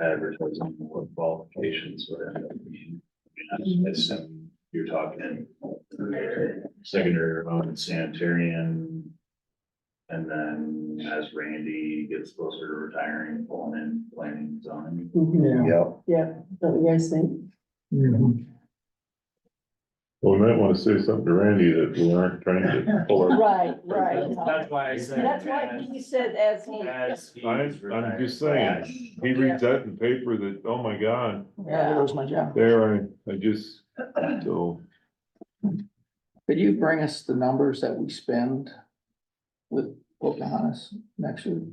advertising what qualifications would end up being. I mean, I assume you're talking secondary remote and sanitarian. And then as Randy gets closer to retiring, pulling in planning zoning. Mhm. Yeah. Yeah, don't you guys think? Mm-hmm. Well, we might want to say something to Randy that we aren't trying to pull our. Right, right. That's why I said. That's why he said as he. As he. I, I'm just saying, he reads that in paper that, oh my God, Yeah, that was my job. there, I, I just, so. Could you bring us the numbers that we spend with Pocahontas next year?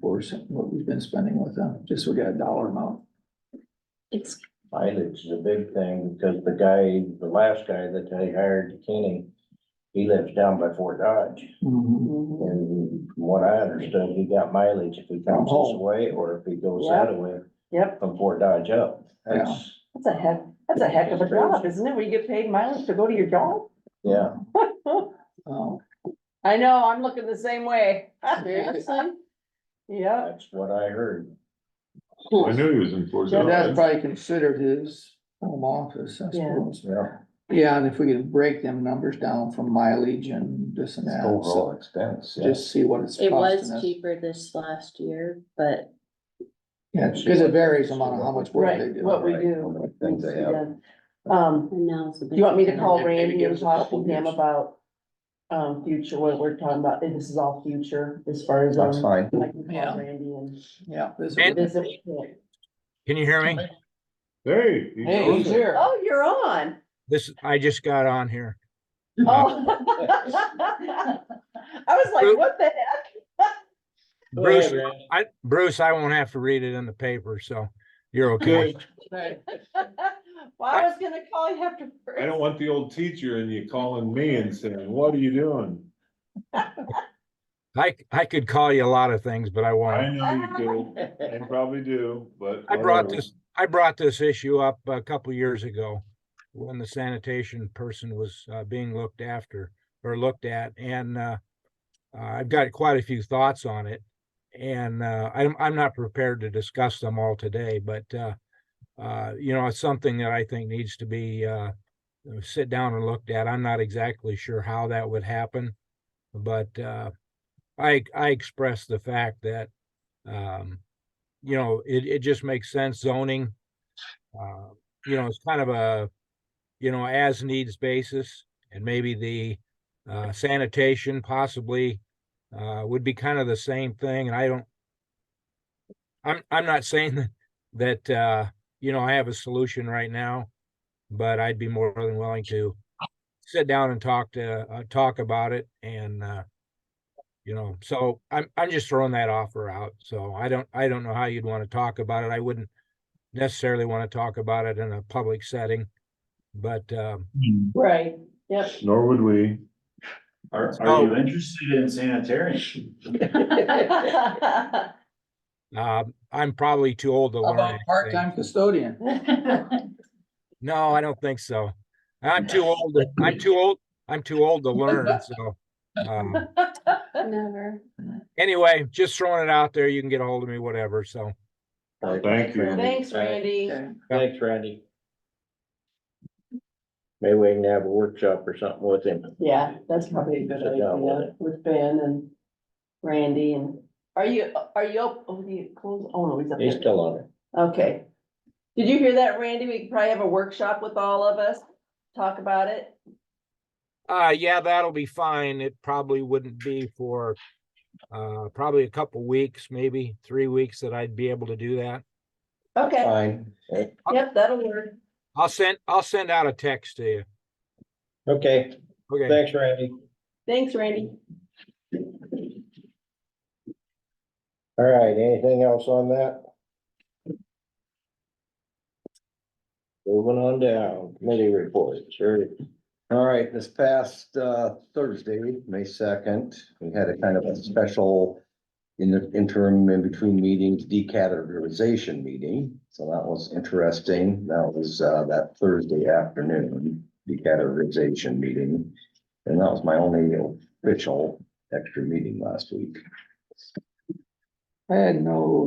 Or some- what we've been spending with them, just so we got a dollar amount. It's Mileage is a big thing because the guy, the last guy that they hired, Kenny, he lives down by Fort Dodge. Mm-hmm. And from what I understood, he got mileage if he comes this home. way or if he goes Oh. Yeah. that way Yep, from Fort Dodge up. That's, that's a heck, that's a heck of a job, isn't it? Where you get paid mileage to go to your job? yeah. Oh, I know, I'm looking the same way. Seriously? Yeah. That's what I heard. I knew he was in Fort So that's Dodge. probably considered his home office, I Yeah. suppose. Yeah. Yeah, and if we could break them numbers down from mileage and this and that, so expense. yeah. just see what it's It was costing us. cheaper this last year, but Yeah, because it varies among how much work they Right, do. what we right, how do. many things they have. Um, now it's a do bit. you want me to call Maybe Randy give and us a talk couple to him years. about um, future, what we're talking about? And This is all future as far as. um, fine. I can call Yeah. Randy and Yeah. this is- And- visit with him. Can you hear me? Hey. he's Hey, he's on it. here. Oh, you're on. This, I just got on here. Oh. I was like, what the heck? Oh, Bruce, I, Bruce, I won't have to read it in the paper, so you're okay. Good. Well, I was gonna call you after. first. I don't want the old teacher and you calling me and saying, what are you doing? I, I could call you a lot of things, but I I won't. know you do, and probably do, but. I brought whatever. this, I brought this issue up a couple years ago when the sanitation person was uh, being looked after or looked at and uh, uh, I've got quite a few thoughts on it. And uh, I'm, I'm not prepared to discuss them all today, but uh, uh, you know, it's something that I think needs to be uh, sit down and looked at. I'm not exactly sure how that would happen. But uh, I, I express the fact that um, you know, it, it just makes sense zoning. Uh, you know, it's kind of a, you know, as needs basis and maybe the uh, sanitation possibly uh, would be kind of the same thing. And I don't, I'm, I'm not saying that, that, uh, you know, I have a solution right now, but I'd be more than willing to sit down and talk to, uh, talk about it and, uh, you know, so I'm, I'm just throwing that offer out. So I don't, I don't know how you'd want to talk about it. I wouldn't necessarily want to talk about it in a public setting. But, um, Right, yep. Nor would we. Are, are you interested in sanitarian? uh, I'm probably too old to How learn. About anything. part-time custodian. No, I don't think so. I'm too old. to- I'm too old. I'm too old to learn. So, um, Never. anyway, just throwing it out there. You can get a hold of me, whatever. So, Thank you. Thanks, Randy. Okay. Thanks, Randy. Maybe we can have a workshop or something with him. Yeah, that's probably a good Sit down with idea it. with Ben and Randy and, are you, are you, op- oh, do you close, oh, no, he's up He's there. still on it. Okay. Did you hear that, Randy? We could probably have a workshop with all of us, talk about it. uh, yeah, that'll be fine. It probably wouldn't be for, uh, probably a couple weeks, maybe three weeks that I'd be able to do that. Uh, Okay, Fine. yep, that'll work. I'll send, I'll send out a text to you. Okay, Okay. thanks, Randy. Thanks, Randy. All right, anything else on that? Moving on down, committee reports, sure. All right, this past uh, Thursday, May second, we had a kind of a special in the interim in between meetings, decategorization meeting. So that was interesting. That was uh, that Thursday afternoon, decategorization meeting. And that was my only official extra meeting last week. I had no